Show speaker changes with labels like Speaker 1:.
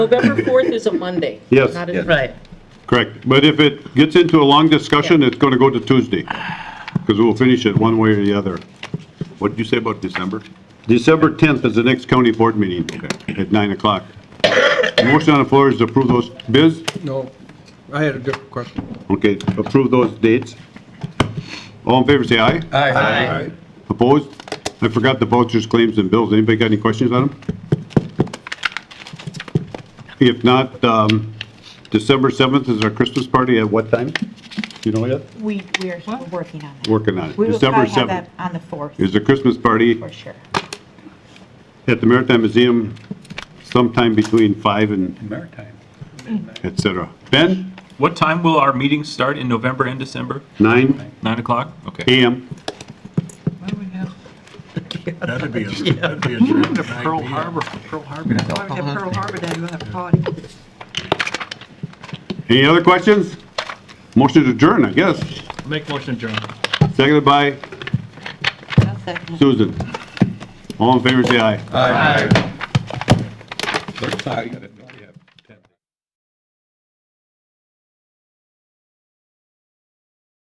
Speaker 1: November 4th is a Monday.
Speaker 2: Yes.
Speaker 1: Not
Speaker 2: Yeah.
Speaker 1: a-
Speaker 3: Right.
Speaker 2: Correct, but if it gets into a long discussion, it's going to go to Tuesday, because we'll finish it one way or the other.
Speaker 4: What did you say about December?
Speaker 2: December 10th is the next county board meeting at 9 o'clock. Motion on the floor is to approve those bids,
Speaker 5: No, I had a different question.
Speaker 2: okay, approve those dates. All in favor, say aye.
Speaker 5: Aye.
Speaker 2: Opposed? I forgot the vouchers, claims, and bills. Anybody got any questions on them? If not, um, December 7th is our Christmas party at what time? You know yet?
Speaker 6: We, we are still working on that.
Speaker 2: Working on it.
Speaker 6: We will
Speaker 2: December
Speaker 6: probably have
Speaker 2: 7th
Speaker 6: that on the 4th,
Speaker 2: is the Christmas party
Speaker 6: for sure.
Speaker 2: at the Maritime Museum sometime between 5 and
Speaker 7: Maritime.
Speaker 2: et cetera. Ben,
Speaker 8: What time will our meetings start in November and December?
Speaker 2: 9
Speaker 8: Nine o'clock? Okay.
Speaker 2: AM.
Speaker 7: That'd be, a- that'd be a dream.
Speaker 3: Pearl Harbor, Pearl Harbor.
Speaker 9: Pearl Harbor Day, we'll have a party.
Speaker 2: Any other questions? Motion to adjourn, I guess.
Speaker 3: Make motion adjourned.
Speaker 2: Seconded by
Speaker 9: I'll second.
Speaker 2: Susan. All in favor, say aye.
Speaker 7: I got it.